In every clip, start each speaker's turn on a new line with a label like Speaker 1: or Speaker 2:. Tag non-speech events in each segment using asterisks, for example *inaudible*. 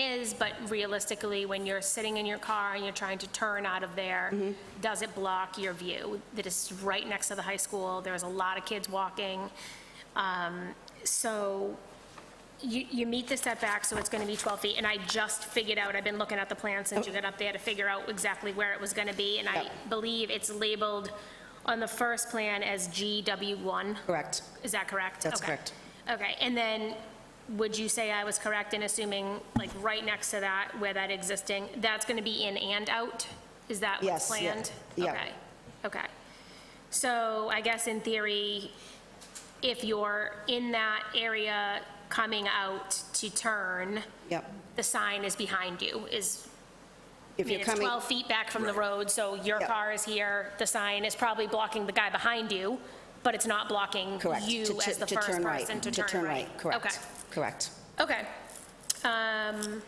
Speaker 1: is, but realistically, when you're sitting in your car and you're trying to turn out of there, does it block your view? That is right next to the high school, there's a lot of kids walking. Um, So you, you meet the setback, so it's going to be 12 feet, and I just figured out, I've been looking at the plan since you got up there to figure out exactly where it was going to be, and I
Speaker 2: Yeah.
Speaker 1: believe it's labeled on the first plan as GW1.
Speaker 2: Correct.
Speaker 1: Is that correct?
Speaker 2: That's
Speaker 1: Okay.
Speaker 2: correct.
Speaker 1: Okay, and then, would you say I was correct in assuming, like, right next to that, where that existing, that's gonna be in and out? Is that what's
Speaker 2: Yes, yeah,
Speaker 1: planned?
Speaker 2: yeah.
Speaker 1: Okay, okay. So I guess in theory, if you're in that area coming out to turn,
Speaker 2: Yep.
Speaker 1: the sign is behind you, is, I
Speaker 2: If
Speaker 1: mean,
Speaker 2: you're
Speaker 1: it's
Speaker 2: coming,
Speaker 1: 12 feet back from the road, so your
Speaker 2: Yeah.
Speaker 1: car is here, the sign is probably blocking the guy behind you, but it's not blocking
Speaker 2: correct.
Speaker 1: you
Speaker 2: to- to-
Speaker 1: as the
Speaker 2: to
Speaker 1: first
Speaker 2: turn right,
Speaker 1: person to turn right.
Speaker 2: Correct, correct.
Speaker 1: Okay, okay. Um,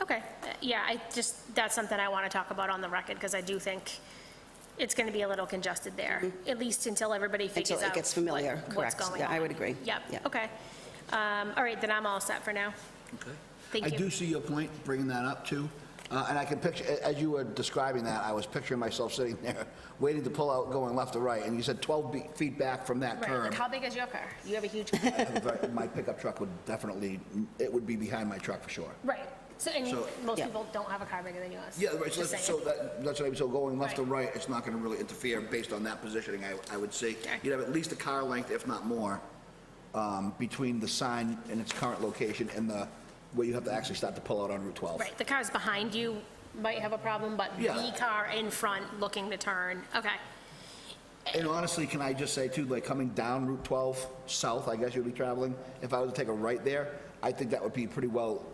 Speaker 1: Okay, Uh, yeah, I just, that's something I want to talk about on the record, because I do think it's going to be a little congested there, at least until everybody figures out.
Speaker 2: Mm-hmm. Until it gets
Speaker 1: what-
Speaker 2: familiar,
Speaker 1: What's
Speaker 2: correct.
Speaker 1: going on.
Speaker 2: Yeah, I would agree. Yeah.
Speaker 1: Yep, okay. Um, All right, then I'm all set for now.
Speaker 3: Okay.
Speaker 1: Thank
Speaker 3: I
Speaker 1: you.
Speaker 3: do see your point, bringing that up too. Uh, And I can picture, a- as you were describing that, I was picturing myself sitting there, *laughs* waiting to pull out, going left or right, and you said 12 be- feet back from that
Speaker 1: Right,
Speaker 3: curb.
Speaker 1: like, how big is your car? You have a
Speaker 2: *laughs*
Speaker 1: huge,
Speaker 3: I have a very- My pickup truck would definitely, it would be behind my truck for sure.
Speaker 1: right, so, and
Speaker 3: So-
Speaker 1: most
Speaker 2: Yeah.
Speaker 1: people don't have a car bigger than yours.
Speaker 3: Yeah, right, so
Speaker 1: Just
Speaker 3: that's, so
Speaker 1: saying.
Speaker 3: that, that's what I mean, so going left or
Speaker 1: Right.
Speaker 3: right, it's not gonna really interfere based on that positioning, I, I would say.
Speaker 1: Okay.
Speaker 3: You'd have at least a car length, if not more, um, between the sign and its current location and the, where you have to actually start to pull out on Route 12.
Speaker 1: Right, the cars behind you might have a problem, but the
Speaker 3: Yeah.
Speaker 1: car in front looking to turn, okay.
Speaker 3: And honestly, can I just say too, like coming down Route 12, south, I guess you'd be traveling, if I was to take a right there, I think that would be pretty well,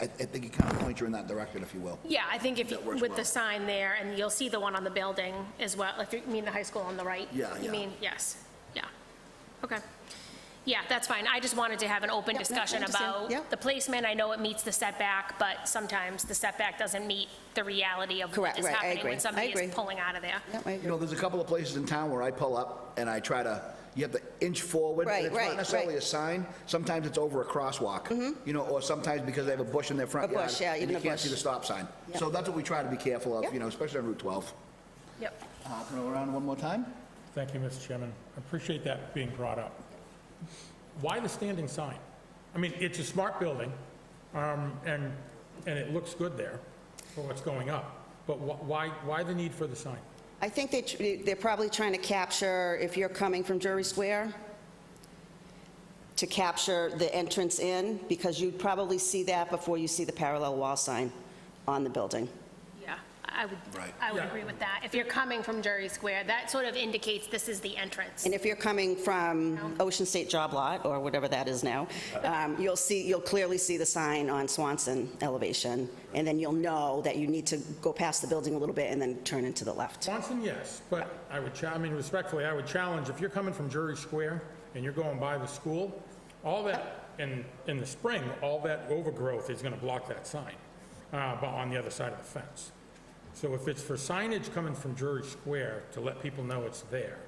Speaker 3: I, I think you kind of point you in that direction, if you will.
Speaker 1: Yeah, I think if, you-
Speaker 3: That works
Speaker 1: with the
Speaker 3: well.
Speaker 1: sign there, and you'll see the one on the building as well, if you mean the high school on the right?
Speaker 3: Yeah,
Speaker 1: You
Speaker 3: yeah.
Speaker 1: mean, yes, yeah, okay. Yeah, that's fine, I just wanted to have an open
Speaker 2: Yeah, no, I
Speaker 1: discussion
Speaker 2: understand.
Speaker 1: about
Speaker 2: Yeah.
Speaker 1: the placement, I know it meets the setback, but sometimes the setback doesn't meet the reality of what
Speaker 2: Correct,
Speaker 1: is
Speaker 2: right, I
Speaker 1: happening
Speaker 2: agree.
Speaker 1: when
Speaker 2: I
Speaker 1: somebody
Speaker 2: agree.
Speaker 1: is pulling out of there.
Speaker 2: Yeah, I
Speaker 3: You
Speaker 2: agree.
Speaker 3: know, there's a couple of places in town where I pull up and I try to, you have to inch forward.
Speaker 2: Right,
Speaker 3: and It's
Speaker 2: right,
Speaker 3: not
Speaker 2: right. Mm-hmm.
Speaker 3: necessarily a sign, sometimes it's over a crosswalk. You know, or sometimes because they have a bush in their front
Speaker 2: A
Speaker 3: yard.
Speaker 2: bush, yeah,
Speaker 3: and
Speaker 2: even a
Speaker 3: You can't
Speaker 2: bush.
Speaker 3: see the stop sign. So that's what we try to be careful of, you know, especially on Route 12.
Speaker 1: Yep.
Speaker 3: Hopping around one more time?
Speaker 4: Thank you, Mr. Chairman. I appreciate that being brought up. Why the standing sign? I mean, it's a smart building, um, and, and it looks good there for what's going up, but wh- why, why the need for the sign?
Speaker 2: I think they, tr- they're probably trying to capture, if you're coming from Drury Square, to capture the entrance in, because you'd probably see that before you see the parallel wall sign on the building.
Speaker 1: Yeah, I would,
Speaker 3: Right.
Speaker 1: I would
Speaker 4: Yeah.
Speaker 1: agree with that. If you're coming from Jury Square, that sort of indicates this is the entrance.
Speaker 2: And if you're coming from Ocean State Job Lot, or whatever that is now, um, you'll see, you'll clearly see the sign on Swanson elevation, and then you'll know that you need to go past the building a little bit and then turn into the left.
Speaker 4: Swanson, yes, but I would, cha- I mean, respectfully, I would challenge, if you're coming from Drury Square and you're going by the school, all that, in, in the spring, all that overgrowth is going to block that sign, uh, but on the other side of the fence. So if it's for signage coming from Drury Square to let people know it's there,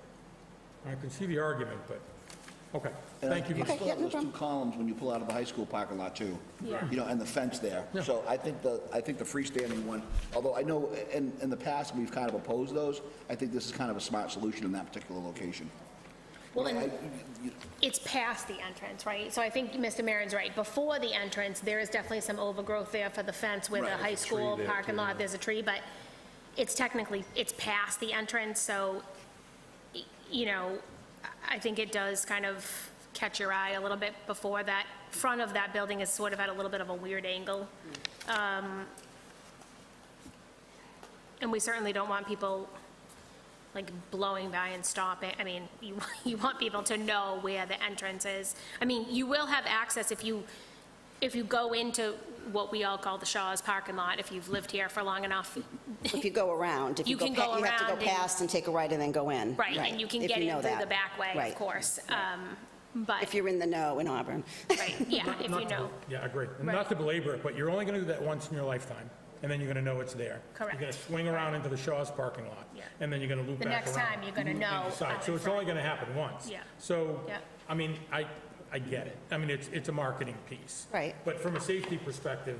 Speaker 4: I can see the argument, but, okay, thank you.
Speaker 3: You
Speaker 4: Mr.
Speaker 3: still
Speaker 2: yeah,
Speaker 3: have
Speaker 2: no
Speaker 3: those two
Speaker 2: problem.
Speaker 3: columns when you pull out of the high school parking lot too.
Speaker 1: Yeah.
Speaker 3: You know, and the fence there.
Speaker 4: Yeah.
Speaker 3: So I think the, I think the freestanding one, although I know in, in the past, we've kind of opposed those, I think this is kind of a smart solution in that particular location.
Speaker 1: Well, and-
Speaker 3: I- you-
Speaker 1: It's past the entrance, right? So I think Mr. Maron's right. Before the entrance, there is definitely some overgrowth there for the fence with the
Speaker 3: Right,
Speaker 1: high
Speaker 3: there's a tree
Speaker 1: school
Speaker 4: there,
Speaker 1: parking lot, there's a tree, but it's technically, it's past the entrance, so, y- you know, I- I think it does kind of catch your eye a little bit before that. Front of that building is sort of at a little bit of a weird angle.
Speaker 3: Mm.
Speaker 1: Um, And we certainly don't want people like blowing by and stopping. I mean, you, *laughs* you want people to know where the entrance is. I mean, you will have access if you, if you go into what we all call the Shaw's parking lot, if you've lived here for long enough,
Speaker 2: If you go around, if you
Speaker 1: You
Speaker 2: go,
Speaker 1: can
Speaker 2: pa-
Speaker 1: go
Speaker 2: you have to
Speaker 1: around
Speaker 2: go
Speaker 1: and-
Speaker 2: past and take a right and then go in.
Speaker 1: right? And you can
Speaker 2: if
Speaker 1: get in
Speaker 2: know
Speaker 1: through the
Speaker 2: that.
Speaker 1: back way,
Speaker 2: Right.
Speaker 1: of course. Um, But,
Speaker 2: If you're in the know in Auburn.
Speaker 1: right,
Speaker 2: *laughs*
Speaker 1: yeah, if
Speaker 4: Not
Speaker 1: you
Speaker 4: to-
Speaker 1: know.
Speaker 4: Yeah, I agree. And
Speaker 1: Right.
Speaker 4: Not to belabor it, but you're only going to do that once in your lifetime, and then you're going to know it's there.
Speaker 1: Correct.
Speaker 4: You're going to swing around into the Shaw's parking lot,
Speaker 1: Yeah.
Speaker 4: and then you're going to loop
Speaker 1: The
Speaker 4: back
Speaker 1: next
Speaker 4: around.
Speaker 1: time, you're gonna
Speaker 4: and
Speaker 1: know
Speaker 4: decide.
Speaker 1: out
Speaker 4: So
Speaker 1: in
Speaker 4: it's
Speaker 1: front.
Speaker 4: only going to happen once.
Speaker 1: Yeah.
Speaker 4: So,
Speaker 1: Yeah.
Speaker 4: I mean, I, I get it. I mean, it's, it's a marketing piece.
Speaker 2: Right.
Speaker 4: But from a safety perspective,